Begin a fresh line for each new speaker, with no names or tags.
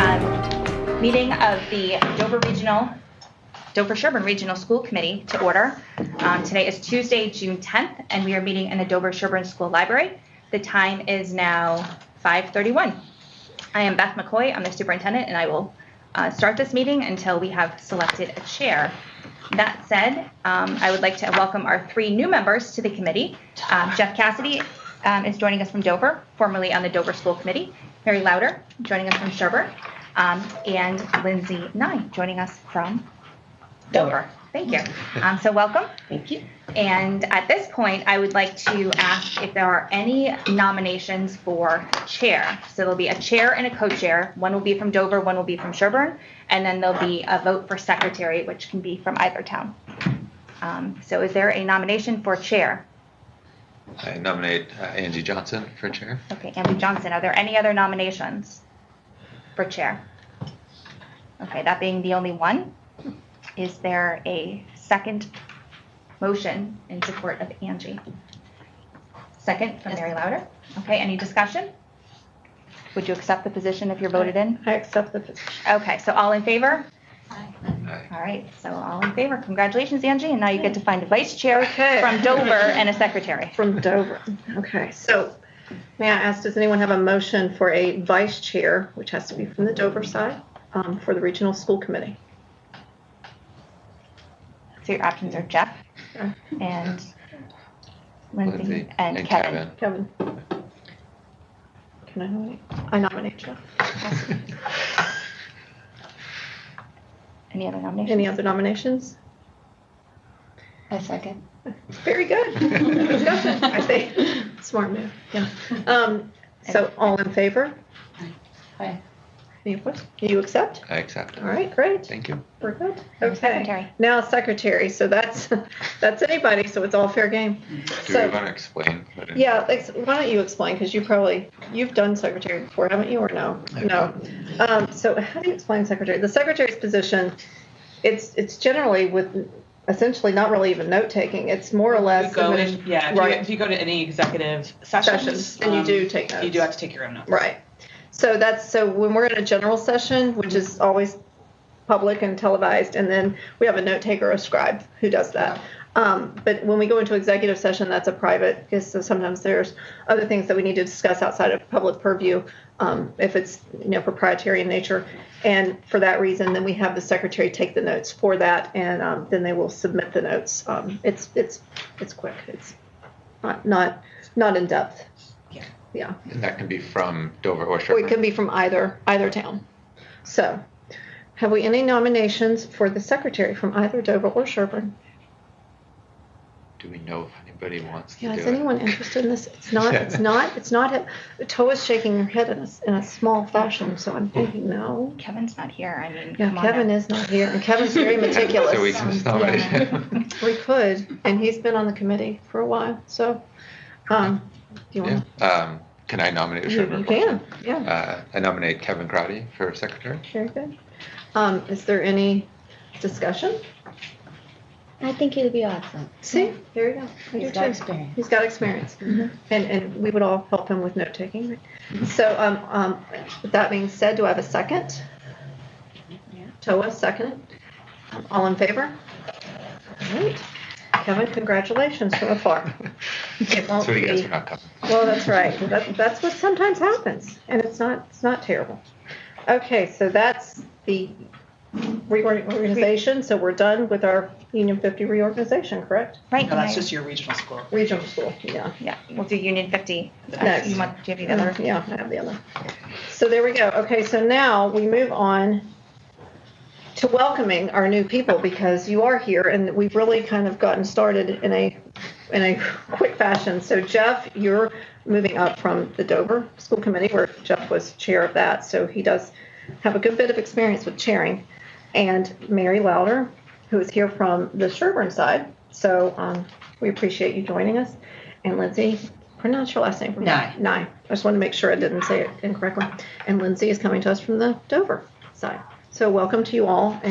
um, meeting of the Dover Regional, Dover Sherburne Regional School Committee to order. Um, Today is Tuesday, June 10th, and we are meeting in the Dover Sherburne School Library. The time is now 5:31. I am Beth McCoy, I'm the superintendent, and I will uh, start this meeting until we have selected a chair. That said, um, I would like to welcome our three new members to the committee. Um, Jeff Cassidy um, is joining us from Dover, formerly on the Dover School Committee. Mary Louder, joining us from Sherburne, um, and Lindsay Nye, joining us from Dover. Thank you. Um, So welcome.
Thank you.
And at this point, I would like to ask if there are any nominations for chair. So there'll be a chair and a co-chair. One will be from Dover, one will be from Sherburne, and then there'll be a vote for secretary, which can be from either town. Um, So is there a nomination for chair?
I nominate uh, Angie Johnson for chair.
Okay, Andrew Johnson, are there any other nominations for chair? Okay, that being the only one, is there a second motion in support of Angie? Second from Mary Louder. Okay, any discussion? Would you accept the position if you're voted in?
I accept the position.
Okay, so all in favor?
Aye.
All right, so all in favor. Congratulations, Angie, and now you get to find a vice chair
Okay.
from Dover and a secretary.
From Dover. Okay, so may I ask, does anyone have a motion for a vice chair, which has to be from the Dover side, um, for the regional school committee?
So your options are Jeff and Lindsay and Kevin.
Kevin? Can I nominate? I nominate Jeff.
Any other nominations?
Any other nominations?
A second.
Very good. Good discussion, I think. Smart move, yeah. Um, so all in favor?
Aye.
Any opposed? You accept?
I accept.
All right, great.
Thank you.
We're good.
And
Okay.
secretary.
Now secretary. So that's that's anybody. So it's all fair game.
Do
So-
you want to explain? What it-
Yeah. Ex- why don't you explain? Because you probably you've done secretary before, haven't you? Or no? No. Um, so how do you explain secretary? The secretary's position. It's it's generally with essentially not really even note taking. It's more or less
You go
admini-
in, yeah, if you,
right
if you go to any executive
sessions,
sessions,
and you
um,
do take notes.
You do have to take your own notes.
Right. So that's so when we're in a general session, which is always public and televised, and then we have a note taker or a scribe who does that. Um, but when we go into executive session, that's a private because so sometimes there's other things that we need to discuss outside of public purview um, if it's you know proprietary in nature. And for that reason, then we have the secretary take the notes for that, and um, then they will submit the notes. Um, it's it's it's quick. It's not not not in depth.
Yeah.
Yeah.
And that can be from Dover or
Or it
Sherburne.
can be from either, either town. So, have we any nominations for the secretary from either Dover or Sherburne?
Do we know if anybody wants to
Yeah,
do
is anyone
it?
interested in this? It's not, it's not, it's not, Toa's shaking her head in a, s- in a small fashion, so I'm
Hmm.
thinking, no.
Kevin's not here. I mean,
Yeah,
come on.
Kevin
now.
is not here, and Kevin's very meticulous.
So we can just
Um,
nominate
yeah.
him.
We could, and he's been on the committee for a while, so, um, do you
yeah.
want?
Um, can I nominate
You
Sherburne?
you
for
can, yeah.
Uh, I nominate Kevin Crotty for secretary.
Very good. Um, is there any discussion?
I think he'd be awesome.
See, there you go. I do
He's got
too.
experience.
He's got experience.
Mhm.
And, and we would all help him with note taking. So, um, um, with that being said, do I have a second?
Yeah.
Toa, second. Um, All in favor? All right. Kevin, congratulations so far. It won't
so you guys
be-
are not coming.
well, that's right. That, that's what sometimes happens, and it's not it's not terrible. Okay, so that's the reorganization. So we're done with our Union 50 reorganization, correct?
Right.
No,
and I-
that's just your regional school.
Regional school, yeah.
Yeah, we'll do Union 50. Uh,
Next.
You want, do you have the
Yeah,
other?
yeah, I have the other. So there we go. Okay, so now we move on to welcoming our new people because you are here and we've really kind of gotten started in a in a quick fashion. So Jeff, you're moving up from the Dover School Committee where Jeff was chair of that. So he does have a good bit of experience with chairing. And Mary Louder, who is here from the Sherburne side. So um, we appreciate you joining us. And Lindsay, pronounce your last name for me.
Nye.
Nye. I just wanted to make sure I didn't say it incorrectly. And Lindsay is coming to us from the Dover side. So welcome to you all.